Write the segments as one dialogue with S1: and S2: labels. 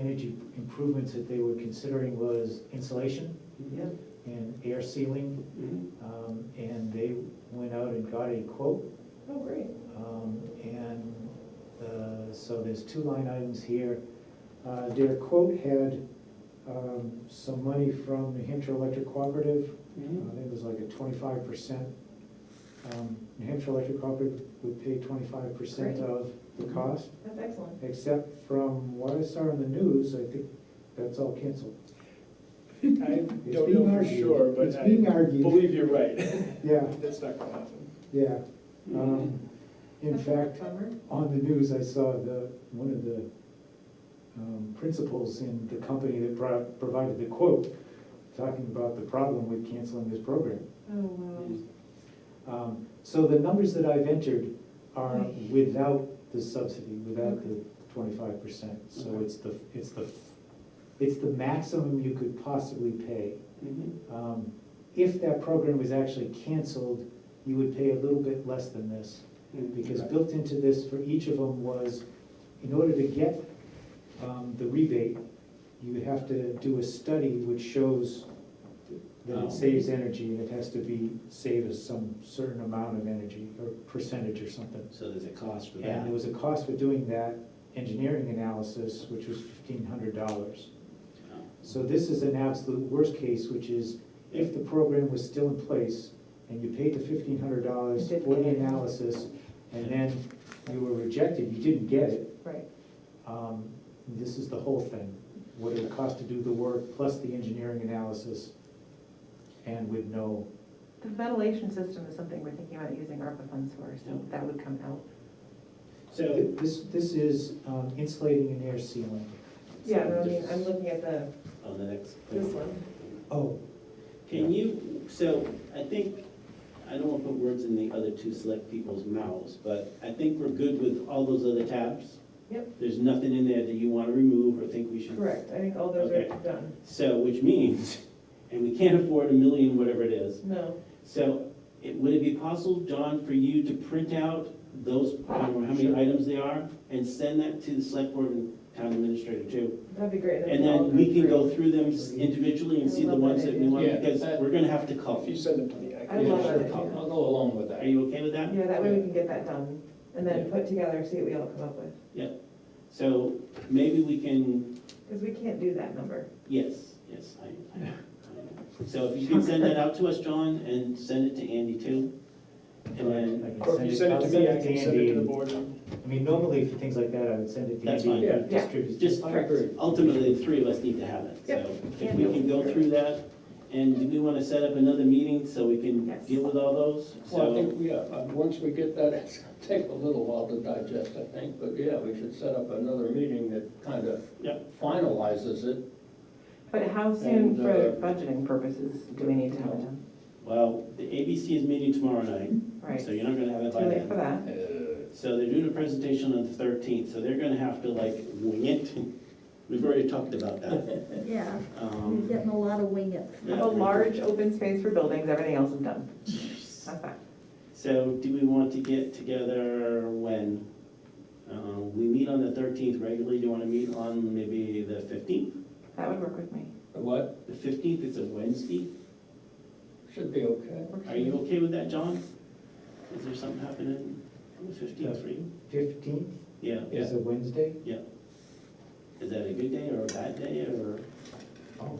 S1: energy improvements that they were considering was insulation
S2: Yeah.
S1: and air sealing.
S2: mhm.
S1: Um, and they went out and got a quote.
S2: Oh, great.
S1: Um, and, uh, so there's two line items here. Uh, their quote had, um, some money from New Hampshire Electric Cooperative
S3: Mm-hmm.
S1: I
S2: Mhm.
S1: think it was like a twenty-five percent. Um, New Hampshire Electric Cooperative would pay twenty-five percent
S2: Great.
S1: of the cost,
S2: That's excellent.
S1: except from what I saw in the news, I think that's all canceled.
S4: I don't
S1: It's being
S4: know for
S1: argued.
S4: sure, but
S1: It's
S4: I
S1: being argued,
S4: believe you're right.
S1: yeah,
S4: That's not gonna happen.
S1: yeah.
S4: Mm-hmm.
S1: Um, In
S2: That's a
S1: fact,
S2: Bummer.
S1: on the news, I saw the, one of the um, principals in the company that pro- provided the quote, talking about the problem with canceling this program.
S2: Oh, wow.
S1: Um, So the numbers that I've entered are without the subsidy, without the twenty-five percent. So
S4: Okay.
S1: it's the, it's the, it's the maximum you could possibly pay.
S4: Mhm.
S1: Um, If that program was actually canceled, you would pay a little bit less than this. Because
S4: Right.
S1: built into this for each of them was, in order to get um, the rebate, you would have to do a study which shows that
S4: Oh.
S1: it saves energy, and it has to be, save us some certain amount of energy, or percentage or something.
S5: So there's a cost for
S1: And
S5: that.
S1: there was a cost for doing that engineering analysis, which was fifteen hundred dollars.
S5: Um,
S1: So this is an absolute worst case, which is if the program was still in place and you paid the fifteen hundred dollars
S2: You didn't
S1: for the
S2: get it.
S1: analysis and then you were rejected, you didn't get it,
S2: Right.
S1: um, this is the whole thing. What it would cost to do the work plus the engineering analysis and with no,
S6: The ventilation system is something we're thinking about using ARPA funds for, so that would come out.
S5: So,
S1: this, this is um, insulating and air sealing.
S2: Yeah, no, I mean, I'm looking at the,
S5: on oh, the next.
S2: this one.
S1: Oh,
S5: Can you, so I think, I don't want to put words in the other two select people's mouths, but I think we're good with all those other tabs.
S2: Yep.
S5: There's nothing in there that you want to remove or think we should.
S2: Correct, I think all those are
S5: Okay.
S2: done.
S5: So, which means, and we can't afford a million, whatever it is.
S2: No,
S5: So it- would it be possible, John, for you to print out those, I don't know how many items they are, and send that to the select board and town administrator too?
S2: that'd be great.
S5: And
S2: we all
S5: then we can
S2: through.
S5: go through them individually and see the ones that we want,
S4: Yeah.
S5: because we're gonna have to call.
S4: If you send them to me, I
S2: I
S4: can.
S2: love
S5: Yeah,
S2: that
S5: the
S2: idea.
S3: I'll go along with
S5: Are
S3: that.
S5: you okay with that?
S2: Yeah, that way we can get that done, and then
S4: Yeah.
S2: put together, see what we all come up with,
S5: So maybe we can,
S2: because we can't do that number.
S5: yes, yes, I, I, I- so if you can send that out to us, John, and send it to Andy too. And then,
S1: I can
S4: Or if you
S1: send
S4: send
S1: I'll
S4: it to me, I
S1: to
S4: can send it to the
S1: Andy.
S4: board.
S1: I mean, normally for things like that, I would send it to
S5: That's
S1: Andy.
S4: fine.
S1: and
S2: Yeah.
S1: distribute it.
S5: just
S4: I agree.
S5: ultimately, the three of us need to have it.
S2: Yep.
S5: So if we can go through that, and do we wanna set up another meeting so we can
S6: Yes.
S5: deal with all those?
S3: Well, I
S5: So,
S3: think, yeah, uh, once we get that, it's gonna take a little while to digest, I think, but yeah, we should set up another meeting that kind of
S5: Yep.
S3: finalizes it.
S6: But how soon
S3: And,
S6: for
S3: uh,
S6: budgeting purposes do we need to have it done?
S5: well, the ABC is meeting tomorrow night,
S6: Right,
S5: so you're not gonna have it
S6: too
S5: by then.
S6: late for that.
S3: Uh,
S5: So they're doing a presentation on the thirteenth, so they're gonna have to like wing it. We've already talked about that.
S7: Yeah, you're
S5: Um,
S7: getting a lot of wing it.
S5: yeah.
S6: Have a large open space for buildings, everything else is done. That's that.
S5: So do we want to get together when? Uh, We meet on the thirteenth regularly, do you wanna meet on maybe the fifteenth?
S6: That would work with me.
S3: What?
S5: The fifteenth is a Wednesday,
S3: Should be okay.
S5: are you okay with that, John? Is there something happening on the fifteenth for you?
S1: Fifteenth
S5: Yeah,
S1: is a Wednesday?
S5: is that a good day or a bad day or?
S1: Oh,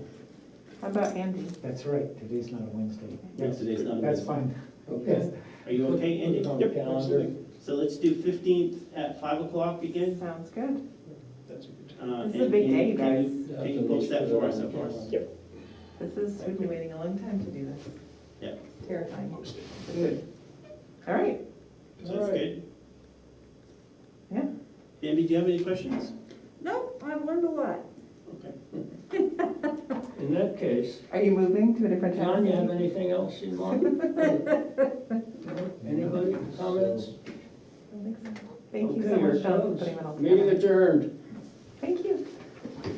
S6: How about Andy?
S1: that's right, today's not a Wednesday.
S5: No, today's not a
S1: That's fine.
S5: Wednesday.
S3: Okay.
S5: Are you okay, Andy?
S3: Put it on the calendar.
S5: So let's do fifteenth at five o'clock again?
S6: Sounds good.
S4: That's a good time.
S5: Uh,
S6: This is a
S5: and-
S6: big
S5: and
S6: day, you
S5: can
S6: guys.
S5: you- Can you post that for us, of course?
S4: Yep.
S6: This is, we've been waiting a long time to do this.
S5: Yeah.
S6: Terrifying.
S4: Post it.
S6: Good. All right,
S5: So that's good.
S6: yeah.
S5: Bambi, do you have any questions?
S7: No, I've learned a lot.
S5: Okay.
S3: In that case,
S6: Are you moving to a different town?
S3: John, you have anything else you want? Anybody, comments?
S6: I don't think so.
S3: Okay,
S6: Thank you so much, John, for
S3: yourselves.
S6: putting that all together.
S3: Meeting adjourned.
S6: Thank you.